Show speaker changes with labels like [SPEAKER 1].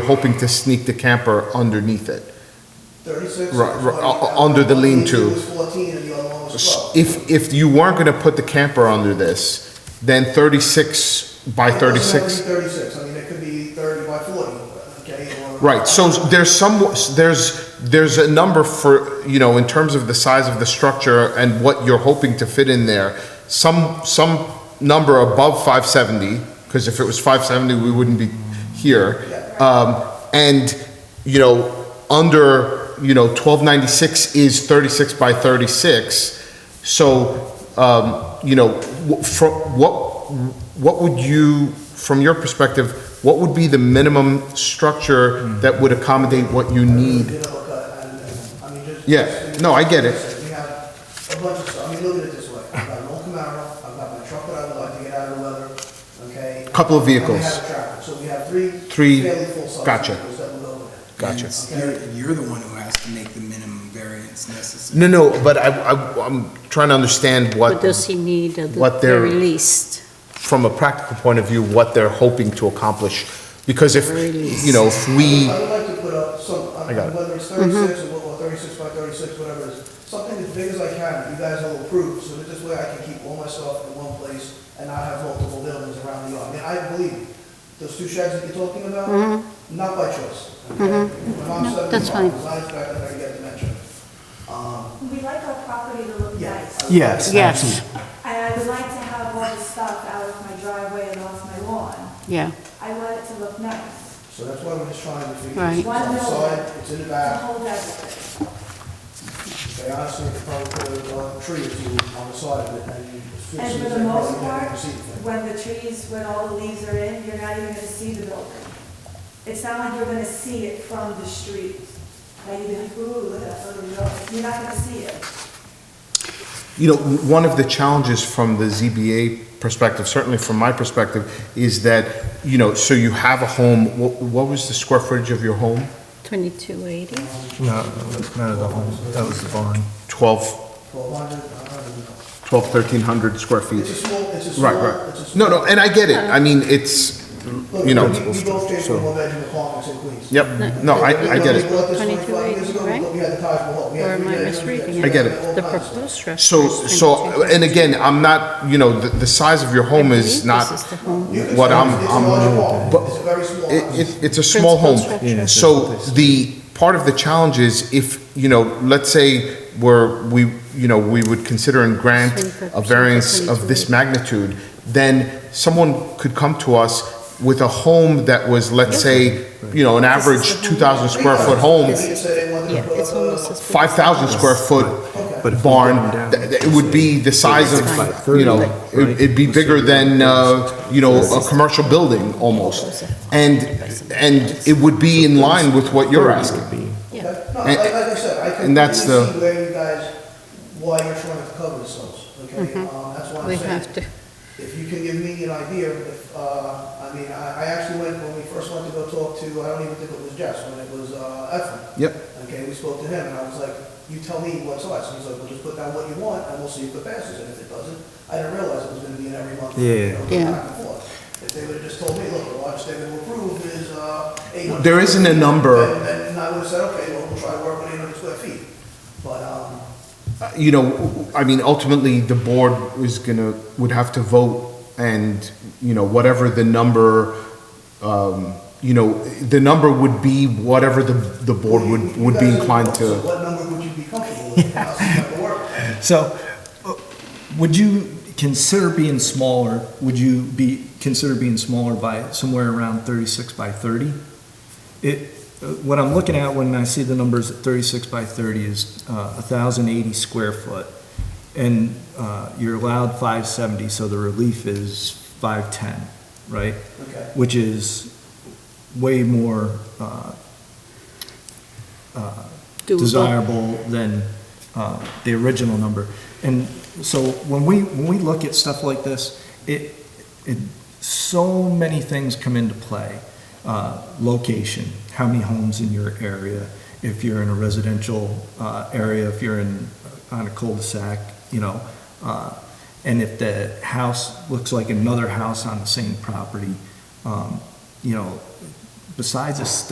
[SPEAKER 1] hoping to sneak the camper underneath it.
[SPEAKER 2] 36
[SPEAKER 1] Right,
[SPEAKER 2] and
[SPEAKER 1] right,
[SPEAKER 2] 20.
[SPEAKER 1] u- u- under the
[SPEAKER 2] One
[SPEAKER 1] lean-to.
[SPEAKER 2] was 14 and the other one was 12.
[SPEAKER 1] If, if you weren't gonna put the camper under this, then thirty-six by
[SPEAKER 2] It doesn't have to
[SPEAKER 1] thirty-six.
[SPEAKER 2] be 36, I mean, it could be 30 by 40, okay? or-
[SPEAKER 1] Right, so there's some, there's, there's a number for, you know, in terms of the size of the structure and what you're hoping to fit in there. Some, some number above five seventy, because if it was five seventy, we wouldn't be here. Um, and, you know, under, you know, twelve ninety-six is thirty-six by thirty-six. So, um, you know, wh- from, what, what would you, from your perspective, what would be the minimum structure that would accommodate what you need?
[SPEAKER 2] You know, uh, and, uh, I mean, just-
[SPEAKER 1] Yeah,
[SPEAKER 2] just-
[SPEAKER 1] no, I get it.
[SPEAKER 2] We have a bunch of stuff, I mean, look at it this way, I've got an old Camaro, I've got my truck that I would like to get out of the weather, okay?
[SPEAKER 1] Couple of
[SPEAKER 2] And we
[SPEAKER 1] vehicles.
[SPEAKER 2] have a tractor. so we have three.
[SPEAKER 1] Three-
[SPEAKER 2] Fairly full-size
[SPEAKER 1] gotcha.
[SPEAKER 2] vehicles that will go with it.
[SPEAKER 1] Gotcha.
[SPEAKER 3] And You're, you're the one who has to make the minimum variance necessary.
[SPEAKER 1] No, no, but I, I, I'm trying to understand
[SPEAKER 4] What
[SPEAKER 1] what,
[SPEAKER 4] does he need at the
[SPEAKER 1] what they're-
[SPEAKER 4] very least?
[SPEAKER 1] from a practical point of view, what they're hoping to accomplish. Because if,
[SPEAKER 4] Release.
[SPEAKER 1] you know, if we,
[SPEAKER 2] I would like to put up some, I
[SPEAKER 1] I got
[SPEAKER 2] mean,
[SPEAKER 1] it.
[SPEAKER 2] whether it's thirty-six
[SPEAKER 4] Mm-hmm.
[SPEAKER 2] or or thirty-six by thirty-six, whatever it is, something as big as I can, you guys will approve, so that this way I can keep all my stuff in one place and not have multiple buildings around the yard. I mean, I believe, you. those two sheds that you're talking about, not by choice. okay? My mom's
[SPEAKER 4] Mm-hmm. No, that's
[SPEAKER 2] 75,
[SPEAKER 4] fine.
[SPEAKER 2] it's not expected that I get dementia. Um,
[SPEAKER 5] We like our property to look
[SPEAKER 2] yeah.
[SPEAKER 5] nice,
[SPEAKER 6] Yes,
[SPEAKER 4] Yes.
[SPEAKER 6] absolutely.
[SPEAKER 5] and I would like to have all the stuff out of my driveway and off my lawn.
[SPEAKER 4] Yeah,
[SPEAKER 5] I want it to look nice,
[SPEAKER 2] So that's why I'm just trying to figure,
[SPEAKER 4] Right.
[SPEAKER 2] it's on the side, it's in the
[SPEAKER 5] to
[SPEAKER 2] back,
[SPEAKER 5] hold everything.
[SPEAKER 2] they honestly could probably put a uh, tree or two on the side of it and. fix
[SPEAKER 5] And
[SPEAKER 2] it,
[SPEAKER 5] for the
[SPEAKER 2] and
[SPEAKER 5] most
[SPEAKER 2] probably never
[SPEAKER 5] part,
[SPEAKER 2] even see the thing.
[SPEAKER 5] when the trees, when all the leaves are in, you're not even gonna see the building. It's not like you're gonna see it from the street, like you're gonna, be, ooh, look at that little building, you're not gonna see it.
[SPEAKER 1] You know, one of the challenges from the ZBA perspective, certainly from my perspective, is that, you know, so you have a home, wh- what was the square footage of your home?
[SPEAKER 4] 2280.
[SPEAKER 6] No, not at all. That was the barn.
[SPEAKER 1] 12,
[SPEAKER 2] Twelve hundred, I don't even know.
[SPEAKER 1] 12, 1,300 square feet?
[SPEAKER 2] It's a small, it's a small,
[SPEAKER 1] Right,
[SPEAKER 2] it's a
[SPEAKER 1] right.
[SPEAKER 2] small.
[SPEAKER 1] No, no, and I get it. I mean, it's,
[SPEAKER 2] Look,
[SPEAKER 1] you know,
[SPEAKER 2] We we both came
[SPEAKER 1] so-
[SPEAKER 2] from one bedroom apartments in Queens.
[SPEAKER 1] yep, no, I, I get
[SPEAKER 2] When
[SPEAKER 1] it.
[SPEAKER 2] we bought this
[SPEAKER 4] 22
[SPEAKER 2] 25 years ago,
[SPEAKER 4] right?
[SPEAKER 2] We had the Taj Mahal. We had
[SPEAKER 4] Or am I
[SPEAKER 2] three bedrooms,
[SPEAKER 4] misreading
[SPEAKER 2] we
[SPEAKER 4] it?
[SPEAKER 2] had
[SPEAKER 1] I get it.
[SPEAKER 2] all
[SPEAKER 4] The
[SPEAKER 2] kinds of stuff.
[SPEAKER 4] proposed structure.
[SPEAKER 1] So,
[SPEAKER 4] is
[SPEAKER 1] so,
[SPEAKER 4] 22.
[SPEAKER 1] and again, I'm not, you know, the, the size of your home
[SPEAKER 4] I believe
[SPEAKER 1] is not
[SPEAKER 4] This is the home.
[SPEAKER 2] You can
[SPEAKER 1] what
[SPEAKER 2] say
[SPEAKER 1] I'm,
[SPEAKER 2] it's a large
[SPEAKER 1] I'm,
[SPEAKER 2] apartment,
[SPEAKER 1] but
[SPEAKER 2] It's a very small house.
[SPEAKER 1] It, it, it's a small home.
[SPEAKER 4] Principal structure. Yeah,
[SPEAKER 1] So the, part of the challenge is if, you know, let's say where we, you know, we would consider and grant a
[SPEAKER 4] 25%
[SPEAKER 1] variance of this
[SPEAKER 4] to
[SPEAKER 1] magnitude, then someone could come to us with a home that was, let's say, you know, an
[SPEAKER 4] This is the
[SPEAKER 1] average
[SPEAKER 4] home.
[SPEAKER 1] two thousand square foot home,
[SPEAKER 2] They said they wanted to
[SPEAKER 4] Yeah,
[SPEAKER 2] put
[SPEAKER 4] it's
[SPEAKER 2] up a-
[SPEAKER 4] almost as big.
[SPEAKER 1] five thousand square foot
[SPEAKER 6] But if we
[SPEAKER 1] barn,
[SPEAKER 6] go down-
[SPEAKER 1] th- th- it would be the size of,
[SPEAKER 6] Five
[SPEAKER 1] you
[SPEAKER 6] thirty,
[SPEAKER 1] know,
[SPEAKER 6] right?
[SPEAKER 1] it- it'd be bigger than, uh, you know, a commercial building almost. And, and it would be in line with what you're asking.
[SPEAKER 2] Okay.
[SPEAKER 4] Yeah.
[SPEAKER 2] No,
[SPEAKER 1] And-
[SPEAKER 2] like, like I said, I can
[SPEAKER 1] and
[SPEAKER 2] really
[SPEAKER 1] that's
[SPEAKER 2] see
[SPEAKER 1] the-
[SPEAKER 2] where you guys, why you're trying to cover yourselves, okay? Um, That's why I'm
[SPEAKER 4] Mm-hmm. We
[SPEAKER 2] saying.
[SPEAKER 4] have to,
[SPEAKER 2] if you can give me an idea, if, uh, I mean, I, I actually went, when we first went to go talk to, I don't even think it was Jess, when it was, uh, Efren.
[SPEAKER 1] Yep.
[SPEAKER 2] Okay, we spoke to him, and I was like, you tell me what size, and he's like, well, just put down what you want, and we'll see if it passes, and if it doesn't, I didn't realize it was gonna be in every month. you
[SPEAKER 6] Yeah.
[SPEAKER 2] know,
[SPEAKER 4] Yeah.
[SPEAKER 2] back and forth. If they would've just told me, look, the largest they will approve is, uh, eight hundred.
[SPEAKER 1] There isn't a number.
[SPEAKER 2] Then I would've said, okay, well, we'll try to work with eight hundred square feet, but, um,
[SPEAKER 1] You know, I mean, ultimately, the board is gonna, would have to vote and, you know, whatever the number, um, you know, the number would be whatever the, the board would, would be inclined
[SPEAKER 2] So
[SPEAKER 1] to.
[SPEAKER 2] What number would you be comfortable with, how's it gonna work?
[SPEAKER 6] So, uh, would you consider being smaller, would you be, consider being smaller by somewhere around thirty-six by thirty? It, uh, what I'm looking at when I see the numbers at thirty-six by thirty is uh, a thousand eighty square foot. And uh, you're allowed five seventy, so the relief is five-ten, right?
[SPEAKER 2] Okay.
[SPEAKER 6] Which is way more uh, uh,
[SPEAKER 4] Doable.
[SPEAKER 6] desirable than uh, the original number. And so when we, when we look at stuff like this, it, it, so many things come into play. Uh, Location, how many homes in your area, if you're in a residential uh, area, if you're in, uh, on a cul-de-sac, you know, uh, and if the house looks like another house on the same property, um, you know, besides a step